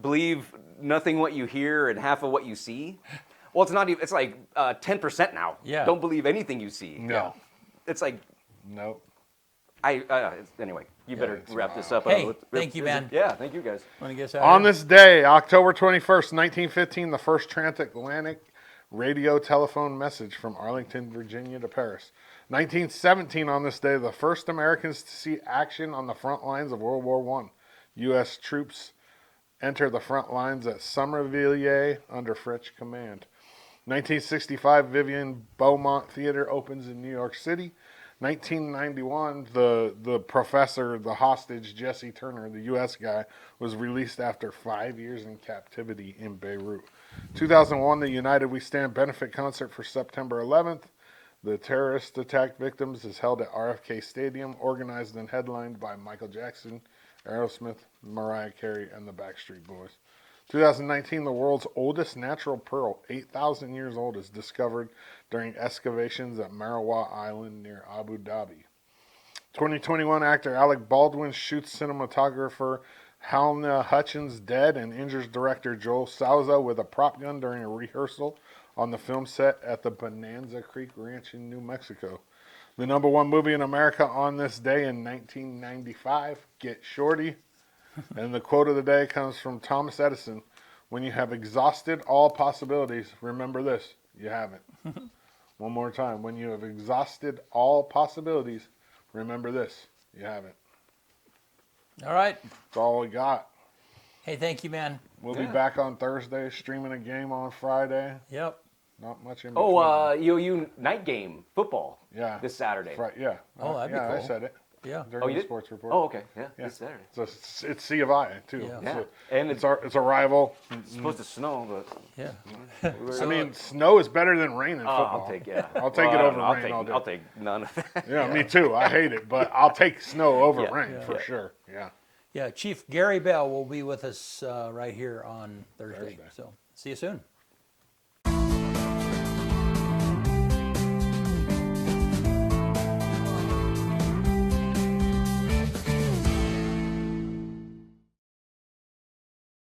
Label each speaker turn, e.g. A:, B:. A: believe nothing what you hear and half of what you see. Well, it's not even. It's like uh, ten percent now.
B: Yeah.
A: Don't believe anything you see.
C: No.
A: It's like
C: Nope.
A: I. Uh, it's- anyway, you better
C: it's-
A: wrap this up.
B: Hey,
A: Uh,
B: thank you,
A: is
B: man.
A: it- Yeah, thank you guys.
B: Want to get us out?
C: On
B: here?
C: this day, October 21st, 1915, the first transatlantic radio telephone message from Arlington, Virginia to Paris. 1917, on this day, the first Americans to see action on the front lines of World War I. U.S. troops enter the front lines at Somerville under French command. 1965, Vivian Beaumont Theater opens in New York City. 1991, the the professor, the hostage Jesse Turner, the U.S. guy, was released after five years in captivity in Beirut. 2001, the United We Stand benefit concert for September 11th. The terrorist attack victims is held at RFK Stadium, organized and headlined by Michael Jackson, Aerosmith, Mariah Carey, and the Backstreet Boys. 2019, the world's oldest natural pearl, 8,000 years old, is discovered during excavations at Marawa Island near Abu Dhabi. 2021 actor Alec Baldwin shoots cinematographer Halna Hutchins dead and injures director Joel Souza with a prop gun during a rehearsal on the film set at the Bonanza Creek Ranch in New Mexico. The number one movie in America on this day in 1995, Get Shorty. And the quote of the day comes from Thomas Edison When you have exhausted all possibilities, remember this you haven't. One more time. When you have exhausted all possibilities, remember this you haven't.
B: All right.
C: That's all we got.
B: Hey, thank you, man.
C: We'll
A: Yeah.
C: be back on Thursday, streaming a game on Friday.
B: Yep.
C: Not much in
A: Oh,
C: between.
A: uh, UU night game football.
C: Yeah.
A: This Saturday.
C: Fri- yeah.
B: Oh, that'd be
C: yeah, I
B: cool.
C: said it
B: Yeah.
C: during
A: Oh, you
C: the
A: did?
C: sports report.
A: Oh, okay. Yeah,
C: Yeah.
A: this Saturday.
C: So it's, it's C of I, too.
B: Yeah.
C: It's
A: Yeah.
C: a-
A: And
C: it's,
A: it's,
C: our, it's a rival.
A: supposed to snow,
B: Yeah.
A: but
C: I
B: So-
C: mean, snow is better than rain in
A: Oh,
C: football.
A: I'll take yeah.
C: I'll take
A: Well,
C: it
A: I
C: over
A: don't know. I'll
C: rain
A: take,
C: all day.
A: I'll take none of that.
C: Yeah, me too. I hate it, but I'll take snow over
A: Yeah.
C: rain
A: Yeah.
C: for
A: Yeah.
C: sure. Yeah.
B: Yeah. Chief Gary Bell will be with us uh, right here on Thursday. So see you soon.